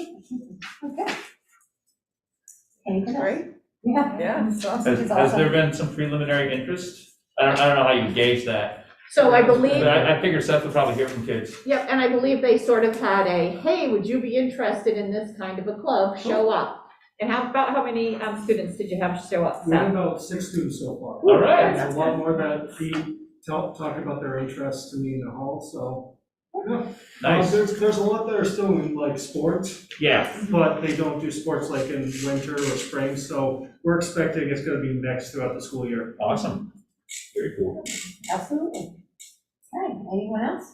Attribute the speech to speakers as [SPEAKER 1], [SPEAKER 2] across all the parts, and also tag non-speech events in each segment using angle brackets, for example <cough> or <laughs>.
[SPEAKER 1] Okay. Any good?
[SPEAKER 2] Right?
[SPEAKER 1] Yeah.
[SPEAKER 2] Yeah, it's awesome.
[SPEAKER 3] Has,
[SPEAKER 1] It's
[SPEAKER 3] has there
[SPEAKER 1] awesome.
[SPEAKER 3] been some preliminary interest? I don't, I don't know how you gauge that.
[SPEAKER 4] So I believe,
[SPEAKER 3] But I, I figure Seth will probably hear from kids.
[SPEAKER 4] yep, and I believe they sort of had a, hey, would you be interested in this kind of a club, show up? And how, about how many um, students did you have show up,
[SPEAKER 5] We have
[SPEAKER 4] Seth?
[SPEAKER 5] about six students so far.
[SPEAKER 3] All right.
[SPEAKER 5] There's a lot more that he tell- talked about their interests to me in the hall, so. Uh,
[SPEAKER 3] Nice.
[SPEAKER 5] There's, there's a lot that are still in like sports,
[SPEAKER 3] Yeah.
[SPEAKER 5] but they don't do sports like in winter or spring, so we're expecting it's gonna be mixed throughout the school year.
[SPEAKER 3] Awesome. Very cool.
[SPEAKER 1] Absolutely. All right, anyone else?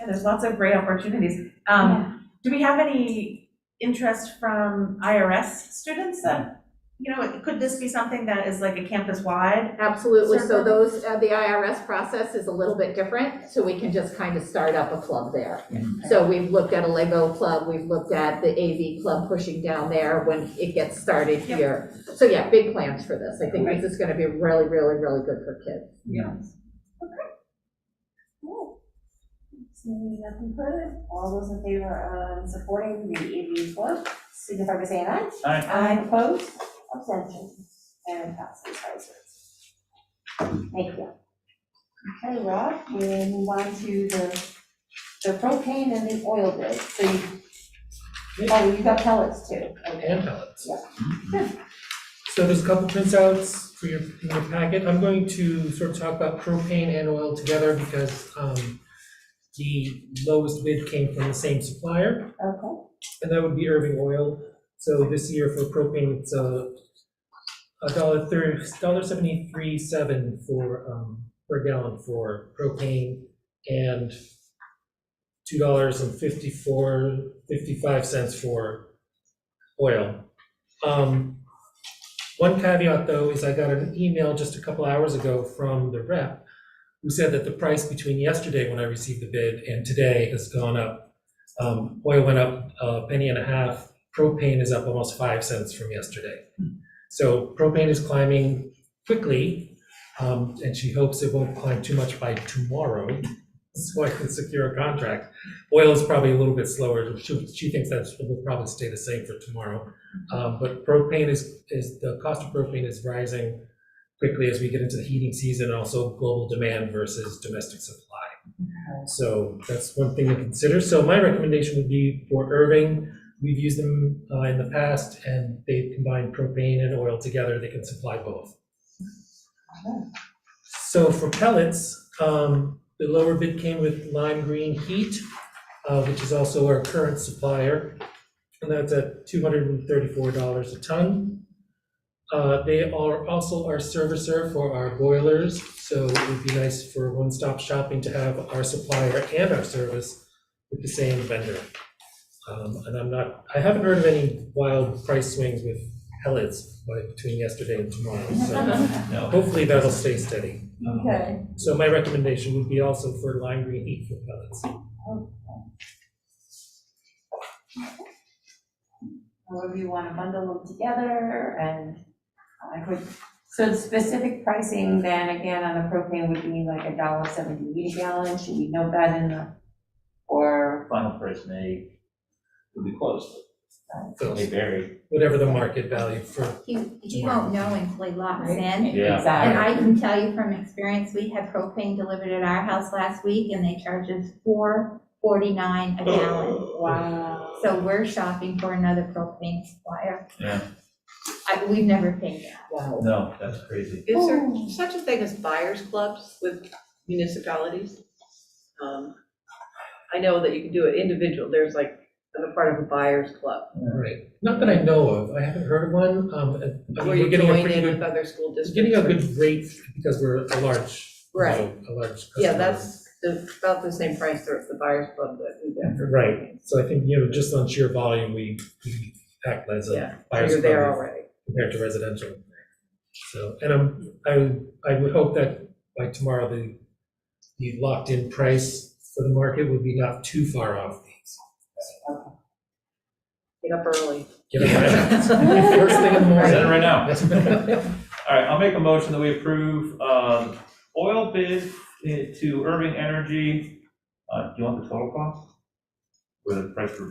[SPEAKER 6] Yeah, there's lots of great opportunities. Um, do we have any interest from IRS students that, you know, could this be something that is like a campus-wide?
[SPEAKER 4] Absolutely, so
[SPEAKER 6] Circle.
[SPEAKER 4] those, uh, the IRS process is a little bit different, so we can just kind of start up a club there. So we've looked at a Lego club, we've looked at the AV club pushing down there when it gets started
[SPEAKER 6] Yep.
[SPEAKER 4] here. So yeah, big plans for this, I think this is gonna be really, really, really good for kids.
[SPEAKER 1] Cool. Seeing nothing further, all those in favor of supporting the AV club, signify by saying aye.
[SPEAKER 3] All right.
[SPEAKER 1] Aye. Opposed, abstentions, and passes by zero. Thank you. Okay, Rob, we move on to the, the propane and the oil bid, so you, oh, you got pellets too, okay.
[SPEAKER 7] and pellets.
[SPEAKER 1] Yeah.
[SPEAKER 7] <laughs> So there's a couple printouts for your, in your packet. I'm going to sort of talk about propane and oil together because um, the lowest bid came from the same supplier,
[SPEAKER 1] Okay,
[SPEAKER 7] and that would be Irving Oil. So this year for propane, it's a a dollar thirty, dollar seventy-three seven for, um, per gallon for propane and two dollars and fifty-four, fifty-five cents for oil. Um, One caveat, though, is I got an email just a couple hours ago from the rep who said that the price between yesterday, when I received the bid, and today has gone up. Um, Oil went up a penny and a half, propane is up almost five cents from yesterday. So propane is climbing quickly, um, and she hopes it won't climb too much by tomorrow, so I can secure a contract. Oil is probably a little bit slower, she, she thinks that will probably stay the same for tomorrow. Um, but propane is, is, the cost of propane is rising quickly as we get into the heating season, and also global demand versus domestic supply. So that's one thing to consider, so my recommendation would be for Irving, We've used them uh, in the past, and they combine propane and oil together, they can supply both. So for pellets, um, the lower bid came with Lime Green Heat, uh, which is also our current supplier, and that's at $234 a ton. Uh, They are also our servicer for our boilers, so it would be nice for one-stop shopping to have our supplier and our service with the same vendor. Um, and I'm not, I haven't heard of any wild price swings with pellets like between yesterday and tomorrow, so
[SPEAKER 3] No.
[SPEAKER 7] hopefully that'll stay steady.
[SPEAKER 1] okay,
[SPEAKER 7] So my recommendation would be also for lime green heat for pellets.
[SPEAKER 1] however you wanna bundle them together and, uh, I could, so the specific pricing then again on the propane would be like a dollar seventy a gallon, should we note that in the, or,
[SPEAKER 3] Final price may, will be close,
[SPEAKER 7] So
[SPEAKER 3] may vary.
[SPEAKER 7] Whatever the market value for,
[SPEAKER 8] You, you won't know until it locks in.
[SPEAKER 3] Yeah.
[SPEAKER 1] Exactly.
[SPEAKER 8] And I can tell you from experience, we had propane delivered at our house last week and they charged us four forty-nine a gallon.
[SPEAKER 1] wow.
[SPEAKER 8] So we're shopping for another propane supplier.
[SPEAKER 3] Yeah.
[SPEAKER 8] I, we've never paid that.
[SPEAKER 4] Wow.
[SPEAKER 3] No, that's crazy.
[SPEAKER 2] Is there such a thing as buyers clubs with municipalities? Um, I know that you can do it individual, there's like, I'm a part of a buyers club,
[SPEAKER 7] right, not that I know of, I haven't heard of one, um, and- I mean,
[SPEAKER 2] where
[SPEAKER 7] we're
[SPEAKER 2] you
[SPEAKER 7] getting a
[SPEAKER 2] join
[SPEAKER 7] pretty
[SPEAKER 2] in with
[SPEAKER 7] good,
[SPEAKER 2] other school
[SPEAKER 7] we're
[SPEAKER 2] districts.
[SPEAKER 7] getting a good rate because we're a large, you
[SPEAKER 2] Right.
[SPEAKER 7] know, a large customer.
[SPEAKER 2] Yeah, that's the- about the same price there at the buyers club that we get.
[SPEAKER 7] Right, so I think, you know, just on sheer volume, we, we act as
[SPEAKER 2] Yeah,
[SPEAKER 7] a buyer's
[SPEAKER 2] You're there
[SPEAKER 7] club.
[SPEAKER 2] already.
[SPEAKER 7] compared to residential. So, and I'm, I, I would hope that by tomorrow, the, the locked-in price for the market would be not too far
[SPEAKER 2] <laughs>
[SPEAKER 7] off these.
[SPEAKER 2] Get up early.
[SPEAKER 7] Get it right? First thing in the
[SPEAKER 3] Set it
[SPEAKER 7] morning.
[SPEAKER 3] right now. All right, I'll make a motion that we approve, um, oil bid eh, to Irving Energy. Uh, do you want the total cost? Or the price per